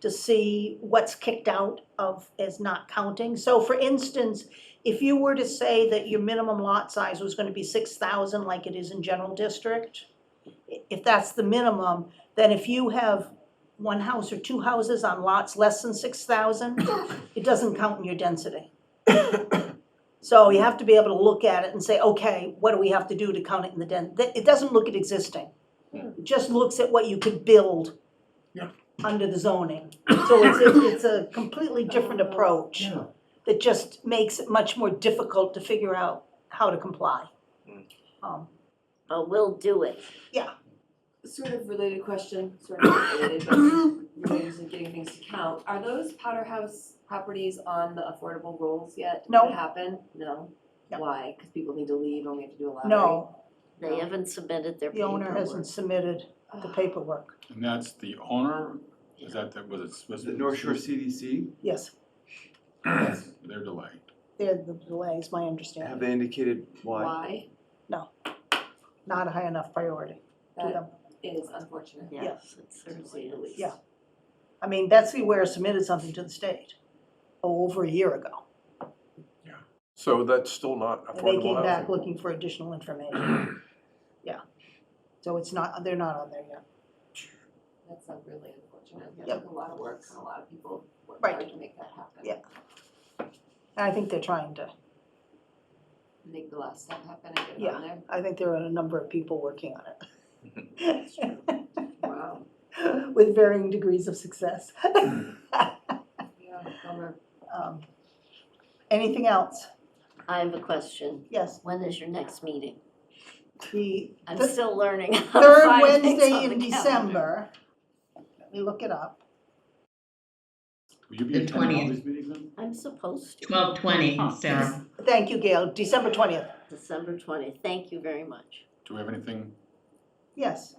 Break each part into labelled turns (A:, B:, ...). A: to see what's kicked out of, as not counting. So for instance, if you were to say that your minimum lot size was gonna be six thousand like it is in general district, i- if that's the minimum, then if you have one house or two houses on lots less than six thousand, it doesn't count in your density. So you have to be able to look at it and say, okay, what do we have to do to count it in the den, that- it doesn't look at existing. It just looks at what you could build
B: Hmm. Yeah.
A: under the zoning. So it's, it's- it's a completely different approach
B: Yeah.
A: that just makes it much more difficult to figure out how to comply.
B: Hmm.
A: Um,
C: but we'll do it.
D: Sort of related question, sort of not related, but related to getting things to count. Are those powder house properties on the affordable rolls yet? Did
A: No.
D: it happen? No?
A: No.
D: Why? Because people need to leave and we have to do a lottery?
A: No,
C: They haven't submitted their
A: the owner
C: paperwork.
A: hasn't submitted the
D: Ugh.
A: paperwork,
E: And that's the owner, is that, the- was it Swiss?
B: The North Shore CDC,
A: yes,
E: They're delayed.
A: they're the delay is my
B: have
A: understanding,
B: they indicated why?
D: Why?
A: not a high enough priority to
D: That
A: them.
D: is unfortunate.
C: Yes, it certainly is.
A: Yeah. I mean, Betsy Ware submitted something to the state over a year ago,
F: So that's still not
A: and they came
F: affordable
A: back
F: housing.
A: looking for additional information. Yeah, so it's not, they're not on there yet.
D: That's not really unfortunate. That
A: Yep.
D: took a lot of work and a lot of people worked
A: Right.
D: hard to make that happen.
A: Yeah. And I think they're trying to,
D: Make the last step happen and get it
A: Yeah.
D: on there.
A: I think there are a number of people working on it.
D: Wow.
A: With varying degrees of success.
D: Yeah, bummer.
A: Um, Anything else?
C: I have a question.
A: Yes,
C: When is your next meeting?
A: the
C: I'm
A: the
C: still learning. how to
A: third
C: find things on
A: Wednesday in
C: the calendar.
A: December. Let me look it up.
E: Will you be
G: The
E: attending all
G: 20th.
E: these meetings then?
C: I'm supposed to.
G: Twelve twenty, Sarah.
A: Thank you, Gail, December twentieth,
C: December twentieth. Thank you very much.
E: Do we have anything
A: yes.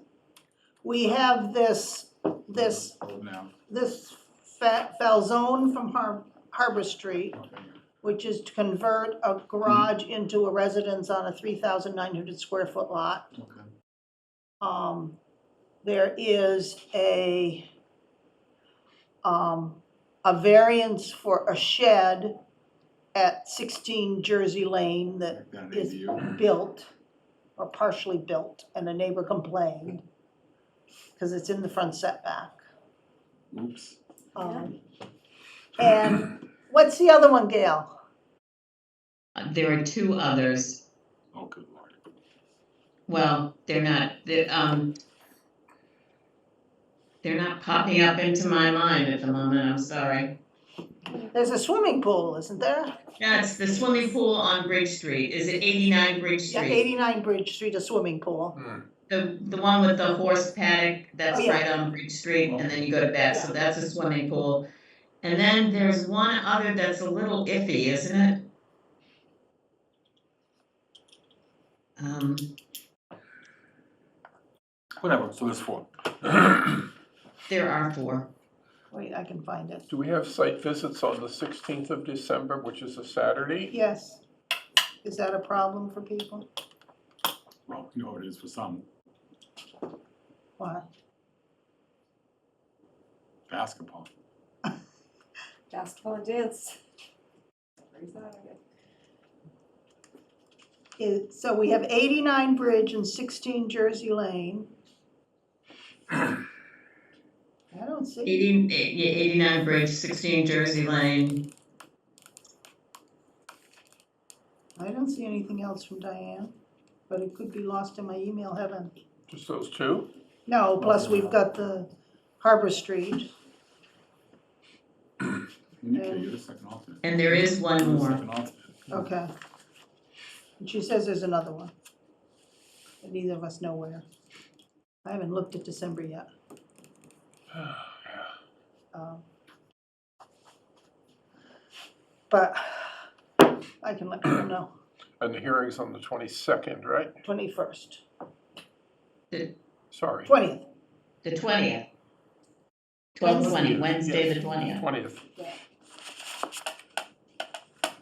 A: We have this, this,
E: Oh, now?
A: this fa- Falzone from Har- Harbor Street,
E: Okay.
A: which is to convert a garage into a residence on a three thousand nine hundred square foot lot.
E: Okay.
A: um, there is a, um, a variance for a shed at sixteen Jersey Lane that
E: Make that an
A: is
E: ADU.
A: built or partially built, and a neighbor complained because it's in the front setback.
E: Oops.
A: Um, And what's the other one, Gail?
G: uh, There are two others.
E: Oh, good lord.
G: Well, they're not, they're, um, they're not popping up into my mind at the moment, I'm sorry.
A: There's a swimming pool, isn't there?
G: That's the swimming pool on Bridge Street. Is it eighty-nine Bridge
A: Yeah,
G: Street?
A: eighty-nine Bridge Street, a swimming pool.
G: The, the one with the horse paddock, that's
A: Oh, yeah.
G: right on Bridge Street, and then you go to back, so that's a swimming pool. And then there's one other that's a little iffy, isn't it? Um,
E: Whatever, so there's four.
G: there are four.
A: Wait, I can find it.
F: Do we have site visits on the sixteenth of December, which is a Saturday?
A: Yes. Is that a problem for people?
E: Well, you know what it is for some,
A: Why?
E: basketball.
D: Basketball and dance. Every Saturday.
A: It, so we have eighty-nine Bridge and sixteen Jersey Lane. I don't see,
G: Eighty, eh, yeah, eighty-nine Bridge, sixteen Jersey Lane.
A: I don't see anything else from Diane, but it could be lost in my email heaven.
F: Just those two?
A: No, plus we've got the Harbor Street.
E: Nikki, you're the second alternate.
G: And there is one
E: You're the
G: more.
E: second alternate.
A: Okay. And she says there's another one. But neither of us know where. I haven't looked at December yet. Um, But I can let people know,
F: And the hearing's on the twenty-second, right?
A: twenty-first,
F: Sorry.
A: twentieth,
G: The twentieth. Twelve twenty, Wednesday the twentieth.
F: Twentieth.
D: Yeah.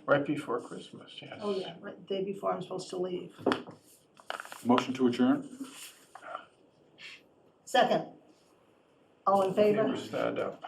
F: Right before Christmas, yes.
A: oh yeah, right, the day before I'm supposed to leave.
E: Motion to adjourn?
A: Second, all in
F: They
A: favor?
F: were Stand up.